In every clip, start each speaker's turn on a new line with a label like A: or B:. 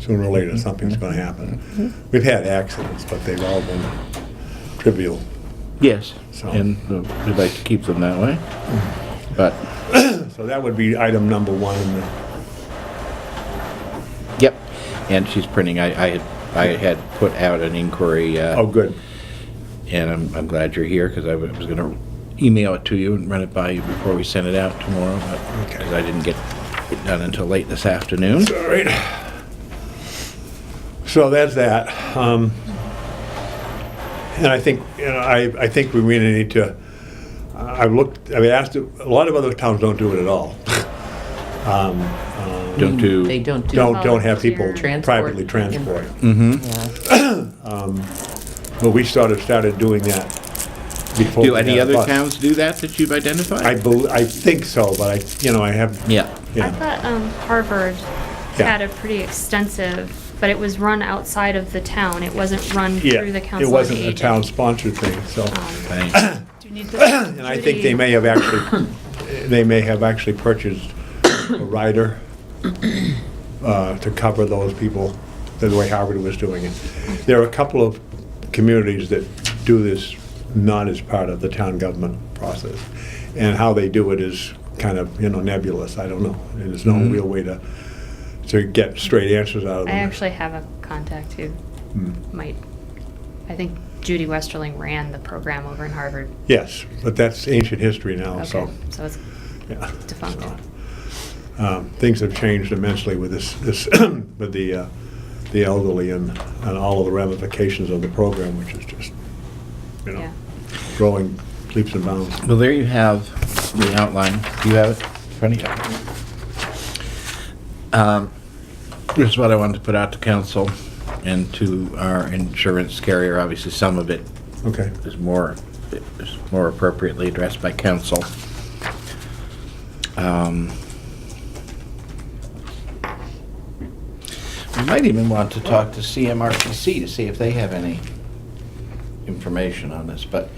A: sooner or later, something's going to happen. We've had accidents, but they've all been trivial.
B: Yes,
A: So-
B: and uh, we'd like to keep them that way. But,
A: So that would be item number one. in the-
B: yep, and she's printing, I, I had, I had put out an inquiry,
A: Oh,
B: uh,
A: good.
B: and I'm, I'm glad you're here, because I wa- was gonna email it to you and run it by you before we send it out tomorrow, but,
A: Okay.
B: because I didn't get it done until late this afternoon.
A: All right. So that's that. Um, And I think, you know, I, I think we really need to, I've looked, I've asked, a lot of other towns don't do it at all. Um, um,
B: Don't
C: They
B: do,
C: don't do.
A: Don't, don't have people
C: Transport.
A: privately transport. Um,
C: Yeah.
B: Mm-hmm.
A: But we sort of started doing that before.
B: do
A: we
B: any
A: had a
B: other
A: bus.
B: towns do that that you've
A: I
B: identified?
A: bel, I think so, but I, you know, I have.
B: Yeah.
D: I
A: Yeah,
D: thought um, Harvard
A: Yeah.
D: had a pretty extensive, but it was run outside of the town. It wasn't run
A: yeah.
D: through the Oh, council.
A: It
D: on
A: wasn't a
D: Aging.
A: town-sponsored thing, so.
B: Thanks.
D: Do you need the?
A: And I think they may have actually, they may have actually purchased a rider uh, to cover those people, the way Harvard was doing it. There are a couple of communities that do this not as part of the town government process. And how they do it is kind of, you know, nebulous, I don't know. There's no real way to, to get straight answers out of
D: I
A: them.
D: actually have a contact who might. I think Judy Westerling ran the program over in Harvard.
A: Yes, but that's ancient history now,
D: Okay,
A: so.
D: so it's
A: yeah.
D: defunct.
A: um, things have changed immensely with this, this with the uh, the elderly and, and all of the ramifications of the program, which is just you know
D: Yeah.
A: growing leaps and bounds.
B: Well, there you have the outline. Do you have it in front of you? Um, This is what I wanted to put out to council and to our insurance carrier. Obviously, some of it
A: Okay,
B: is more, is more appropriately addressed by council. Um, We might even want to talk to CMRPC to see if they have any information on this, but,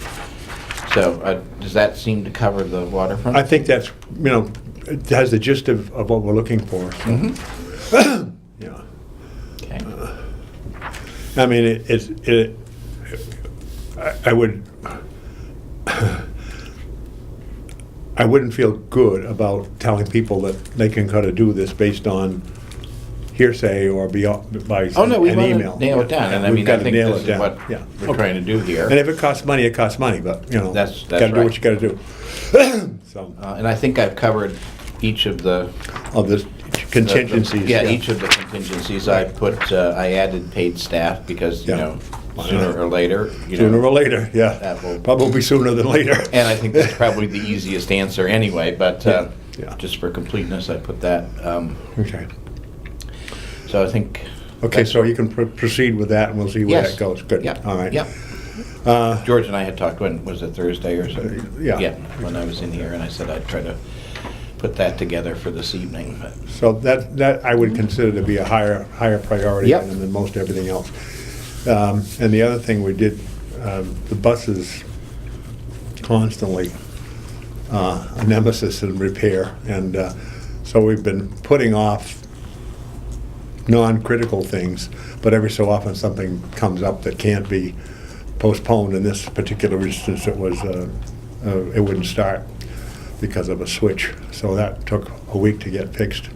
B: so, uh, does that seem to cover the waterfront?
A: I think that's you know it has the gist of, of what we're looking for. So, yeah,
B: Okay.
A: I mean it, it's it. I, I would. I wouldn't feel good about telling people that they can kind of do this based on hearsay or be, by
B: Oh, no, we
A: an
B: want
A: email.
B: to nail it down, and I
A: We've
B: mean, I
A: gotta
B: think
A: nail
B: this
A: it
B: is
A: down.
B: what
A: Yeah.
B: we're trying to do
A: And
B: here.
A: if it costs money, it costs money, but, you know.
B: That's- that's
A: Gotta do
B: right.
A: what you gotta do. So,
B: Uh, And I think I've covered each of the
A: of this
B: the- the-
A: contingencies.
B: Yeah, each of the contingencies I put, uh, I added paid staff because, you
A: Yeah.
B: know, sooner or later, you know.
A: Sooner or later,
B: That
A: yeah.
B: will-
A: Probably sooner than later.
B: And I think that's probably the easiest answer anyway, but uh,
A: Yeah, yeah.
B: just for completeness, I put that. um,
A: Okay.
B: So I think.
A: Okay, so you can pr- proceed with that and we'll see where
B: Yes.
A: that goes. Good,
B: Yep,
A: all right.
B: Yep.
A: Uh,
B: George and I had talked, when, was it Thursday or so?
A: yeah.
B: when I was in here, and I said I'd try to put that together for this evening, but.
A: So that, that I would consider to be a higher, higher priority
B: Yep.
A: item than most everything else. Um, And the other thing we did, um, the buses constantly uh, a nemesis in repair. And uh, so we've been putting off non-critical things, but every so often something comes up that can't be postponed. In this particular instance, it was, uh, uh, it wouldn't start because of a switch. So that took a week to get fixed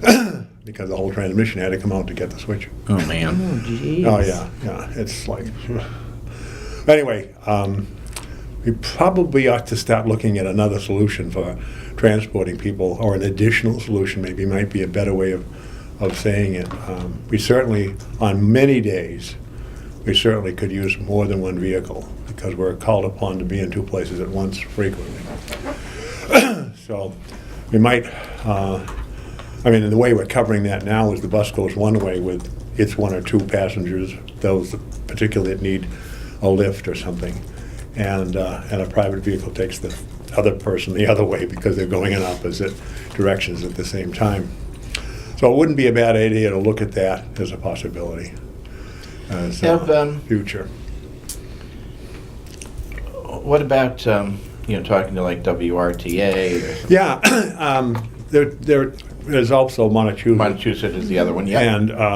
A: because the whole transmission had to come out to get the switch.
B: Oh, man.
A: Oh, yeah, yeah, it's like, anyway, um, we probably ought to start looking at another solution for transporting people, or an additional solution maybe, might be a better way of, of saying it. Um, We certainly, on many days, we certainly could use more than one vehicle, because we're called upon to be in two places at once frequently. So we might, uh, I mean, the way we're covering that now is the bus goes one way with its one or two passengers, those particularly that need a lift or something. And, uh, and a private vehicle takes the other person the other way because they're going in opposite directions at the same time. So it wouldn't be a bad idea to look at that as a possibility. As
B: Have, um,
A: a future.
B: What about, um, you know, talking to like WRTA or something?
A: Yeah, um, there, there is also Montechusett.
B: Montechusett is the other one, yeah.
A: And, uh,